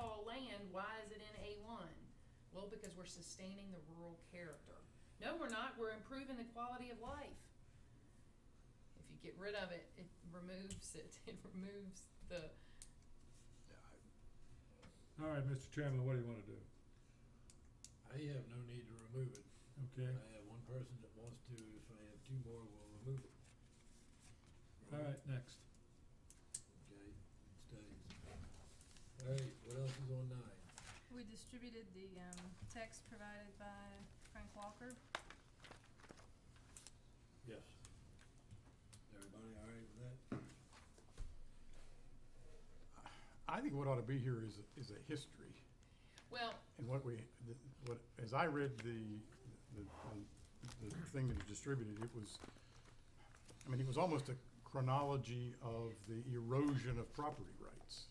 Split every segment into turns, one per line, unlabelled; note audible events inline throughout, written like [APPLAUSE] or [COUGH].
and why is it in A one? Well, because we're sustaining the rural character. No, we're not, we're improving the quality of life. If you get rid of it, it removes it, [LAUGHS] it removes the,
All right, Mr. Chairman, what do you wanna do?
I have no need to remove it.
Okay,
I have one person that wants to, if I have two more, we'll remove it.
all right, next.
Okay, it stays. All right, what else is on nine?
We distributed the um text provided by Frank Walker.
Yes. Everybody all right with that?
I think what ought to be here is, is a history,
well,
and what we, the- what, as I read the, the, the- the thing that was distributed, it was, I mean, it was almost a chronology of the erosion of property rights.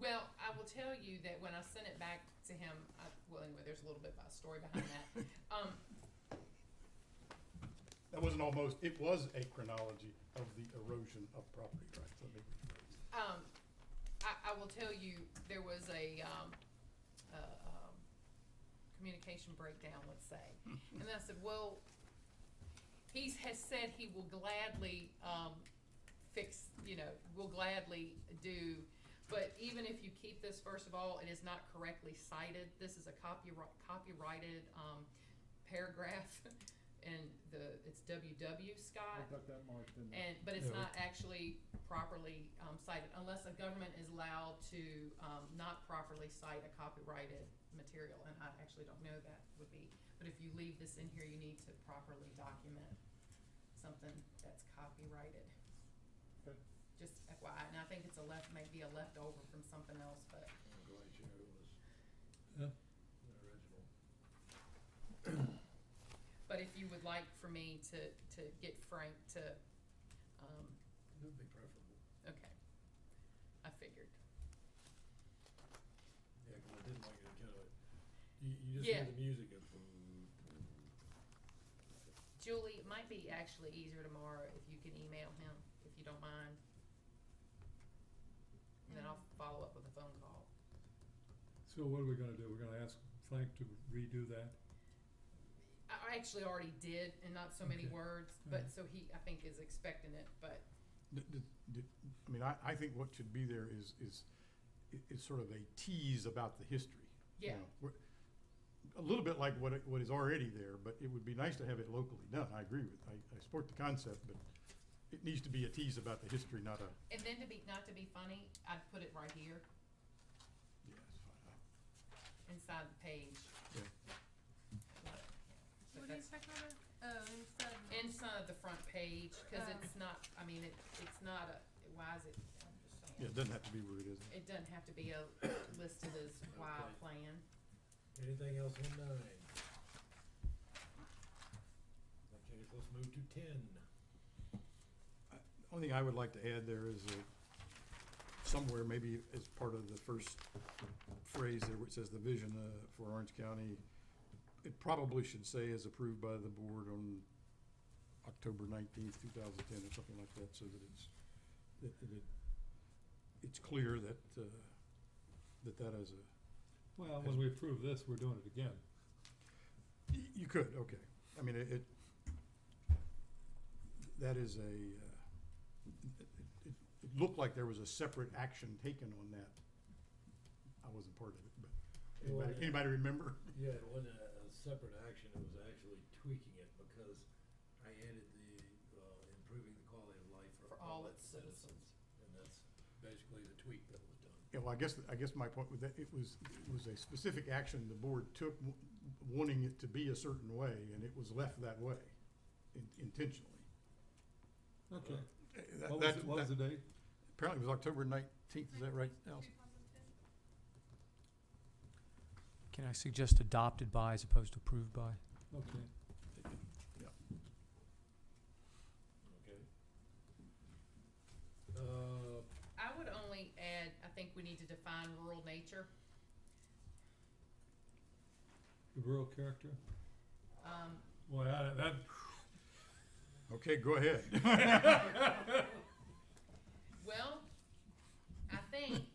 Well, I will tell you that when I sent it back to him, I, well, anyway, there's a little bit of a story behind
[LAUGHS]
that. Um,
That wasn't almost, it was a chronology of the erosion of property rights, let me rephrase.
um, I, I will tell you, there was a, um, a, um, communication breakdown, let's say. And I said, well, he's, has said he will gladly, um, fix, you know, will gladly do, but even if you keep this, first of all, it is not correctly cited. This is a copyright, copyrighted, um, paragraph, [LAUGHS] and the, it's WW Scott.
that marked in
And, but it's not
Yeah.
actually properly um, cited, unless a government is allowed to um, not properly cite a copyrighted material, and I actually don't know that would be. But if you leave this in here, you need to properly document something that's copyrighted.
Okay.
Just FYI, and I think it's a left, maybe a leftover from something else, but
I'm quite sure it was
Yeah.
the original.
but if you would like for me to to get Frank to, um,
It would be preferable.
okay, I figured.
Yeah, 'cause I didn't like it, kind of, you, you just hear
Yeah.
the music of.
Julie, it might be actually easier tomorrow if you can email him, if you don't mind. And then I'll follow up with a phone call.
So what are we gonna do? We're gonna ask Frank to redo that?
I I actually already did, and not so many
Okay.
words, but
Alright.
so he, I think, is expecting it, but
D- d- d- I mean, I, I think what should be there is, is, i- is sort of a tease about the history. you
yeah,
know, we're- A little bit like what, it- what is already there, but it would be nice to have it locally done, I agree with, I, I support the concept, but it needs to be a tease about the history, not a,
and then to be, not to be funny, I'd put it right here,
yeah, it's fine.
inside the page.
Yeah.
But
What do you
that's
expect over? Oh, instead of.
Inside the front page, cause
Oh.
it's not, I mean, it, it's not a, why is it, I'm just saying.
Yeah, it doesn't have to be where it is.
It doesn't have to be a listed as wild
Okay.
plan.
Anything else on nine? Okay, so let's move to ten.
Only thing I would like to add there is a, somewhere maybe as part of the first phrase there where it says the vision uh, for Orange County, it probably should say as approved by the board on October nineteenth, two thousand ten or something like that, so that it's, that, that it, it's clear that, uh, that that is a,
Well, when we approve this, we're doing it again.
y- you could, okay. I mean, it, it- that is a, uh, it, it- it looked like there was a separate action taken on that. I wasn't part of it, but anybody, anybody remember?
Yeah, it wasn't a, a separate action, it was actually tweaking it because I added the, uh, improving the quality of life for all its citizens. And that's basically the tweak that was done.
Yeah, well, I guess, I guess my point with that, it was, it was a specific action the board took, w- wanting it to be a certain way, and it was left that way in- intentionally.
Okay.
Eh, that-
What was,
that-
it- what was the
that-
date?
Apparently it was October nineteenth, is that right, Allison?
Can I suggest adopted by as opposed to approved by?
Okay.
Okay. Uh,
I would only add, I think we need to define rural nature.
The rural character?
Um,
Well, I- that,
Okay,
[LAUGHS]
go ahead.
well, I think